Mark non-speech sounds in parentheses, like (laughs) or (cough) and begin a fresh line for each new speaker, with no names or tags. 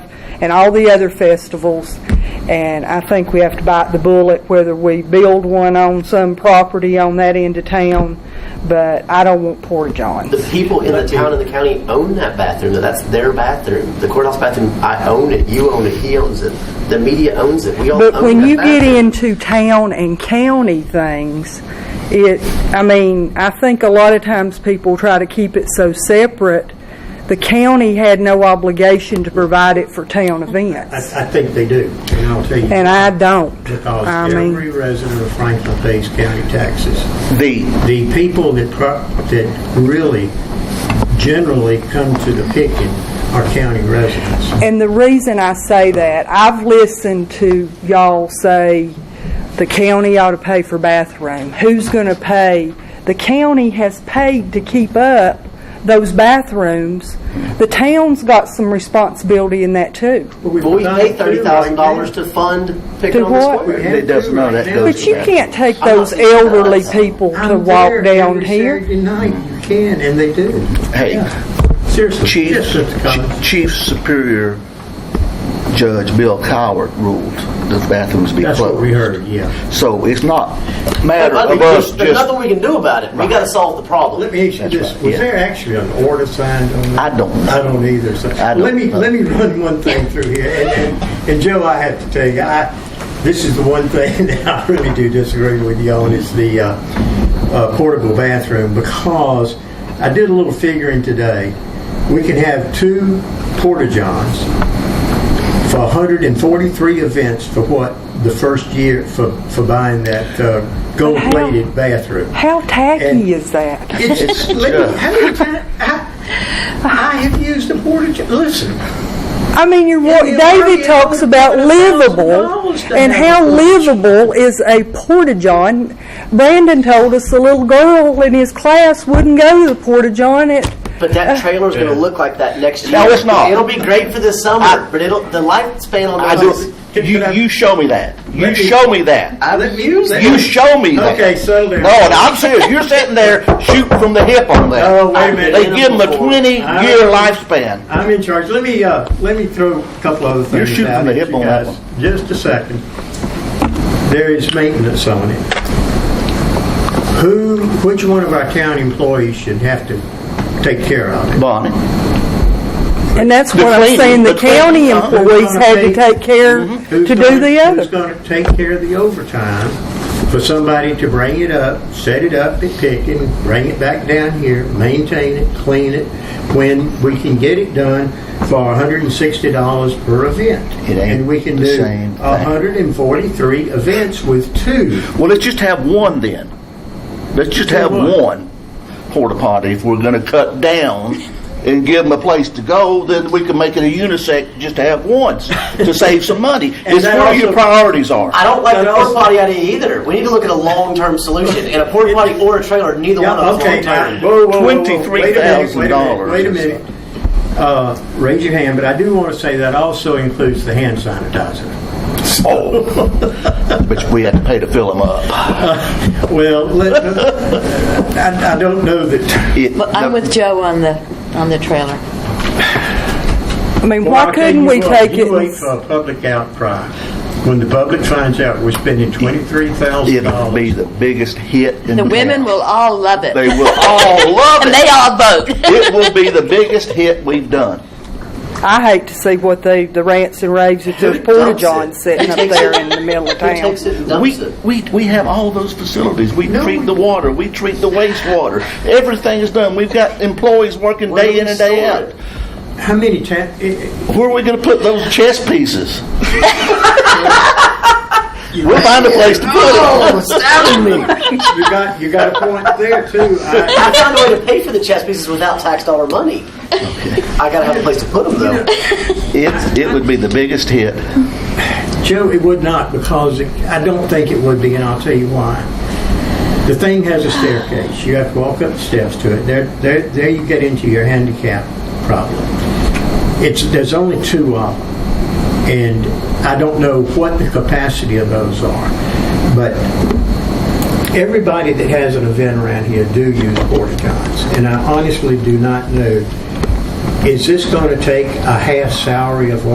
and all the other festivals. And I think we have to bite the bullet whether we build one on some property on that end of town, but I don't want Porta Johns.
The people in the town and the county own that bathroom. That's their bathroom. The courthouse bathroom, I own it. You own it. He owns it. The media owns it. We all
But
own
when
that
you get
bathroom.
into town and county things, it, I mean, I think a lot of times people try to keep it so separate. The county had no obligation to provide it for town events,
I, I think they do, and I'll tell you.
and I don't.
Because
I mean,
every resident of Franklin pays county taxes.
the
The people that, pro- that really generally come to the picking are county residents.
and the reason I say that, I've listened to y'all say the county ought to pay for bathroom. Who's going to pay? The county has paid to keep up those bathrooms. The town's got some responsibility in that too.
well, we pay thirty thousand dollars to fund picking
To
on the
what?
square.
It doesn't, no, that goes.
But you can't take
I'm not
those
saying it
elderly
does.
people to
I'm
walk
there
down
every
here.
Saturday night, you can, and they do.
Hey,
Seriously.
Chief,
Yes, Mr. Collins.
Chief Superior Judge Bill Coward ruled the bathrooms be
That's what we
closed.
heard, yeah.
So it's not matter
But
of us
there's there's
just,
nothing we can do about it. We got to solve the problem.
Let me ask you
That's
this,
right,
was
yeah.
there actually an order signed on that?
I don't know.
I don't either, so,
I don't
let me,
know.
let me run one thing through here, and, and, and Joe, I have to tell you, I, this is the one thing (laughs) that I really do disagree with you on, is the, uh, uh, portable bathroom, because I did a little figuring today, we can have two porta-johns for hundred and forty-three events for what, the first year, for, for buying that, uh, gold-plated bathroom.
How
And-
tacky is that?
It's
(laughs)
just, let me, how many times, I, I have used a porta john, listen,
I mean, you're, wa-
Yeah,
David
yeah,
talks
yeah,
about
yeah,
livable,
$1,000 to
and
have
how
a
livable is a porta john. Brandon told us the little girl in his class wouldn't go to the porta john. It
But that
Uh,
trailer's going to look like that next year.
No, it's not.
It'll be great for this summer, but it'll the lifespan on
I
those.
do, you, you show me that. You show me that.
I've
Let me-
used
let
it.
You show me that.
Okay, settle down.
No, and I'm serious. You're sitting there shooting from the hip on that.
Oh, wait a minute.
They give them a
Before.
twenty-year lifespan.
I'm in charge, let me, uh, let me throw a couple other things
You're shooting
out
from the
at
hip
you
on that
guys.
one.
Just a second, there is maintenance on it. Who, which one of our county employees should have to take care of it?
Bonnie,
and that's
The
what I'm
cleaning,
saying. The
the cleaning,
county
huh?
employees had to
Uh-huh. Who's gonna
take care
Who's
to do
gonna-
the
Who's
other.
gonna take care of the overtime for somebody to bring it up, set it up at Pickin, bring it back down here, maintain it, clean it, when we can get it done for hundred and sixty dollars per event?
It ain't
And we can
the
do
same thing.
hundred and forty-three events with two.
well, let's just have one then. Let's just have
One.
one porta potty if we're gonna cut down and give them a place to go, then we can make it a unisex, just to have ones,
(laughs)
to save some money.
And
It's
that
where your
also-
priorities are.
I don't like
No,
the
no,
porta
it's-
potty idea either. We need to look at a long-term solution. And a porta potty or a trailer, neither one
Yeah,
of
okay.
those
now,
long-term.
whoa, whoa, whoa, whoa. Wait a minute, wait a minute,
$23,000
Wait a minute. Uh, Raise your hand, but I do want to say that also includes the hand sanitizer.
But we had to pay to fill them up.
(laughs)
Well, let, I, I don't know that.
It-
But I'm with Joe on the, on the trailer.
I mean,
Well,
why
I'll tell you
couldn't we
what,
take it?
You wait
and-
for a public outcry. When the public finds out we're spending twenty-three thousand
It'll be
dollars.
the biggest hit in
The women
town.
will all love it.
They will
(laughs)
all love
And
it.
they all vote.
It will be
(laughs)
the biggest hit we've done.
I hate to see what they, the rants and raves if
(laughs)
there's
Who
porta
dumps it?
johns sitting up there in the middle of
Who takes
town.
(laughs) it and dumps
We,
it?
we, we have all those facilities. We treat the water, we treat the wastewater. Everything is done. We've got employees working
Where do
day
we
in and day
store
out.
it?
How many ta- it-
Where are we going to put those chess pieces? We'll find a place to put it.
it- (laughs) You got, you got a point there too. I-
I found a way to pay for the chess pieces without tax dollar money. I gotta have a place to put them though.
It, it would be the biggest hit.
Joe, it would not because it- I don't think it would be and I'll tell you why. The thing has a staircase. You have to walk up the steps to it. There, there, there you get into your handicap problem. It's, there's only two of them. And I don't know what the capacity of those are. But everybody that has an event around here do use porta johns. And I honestly do not know, is this going to take a half salary of one?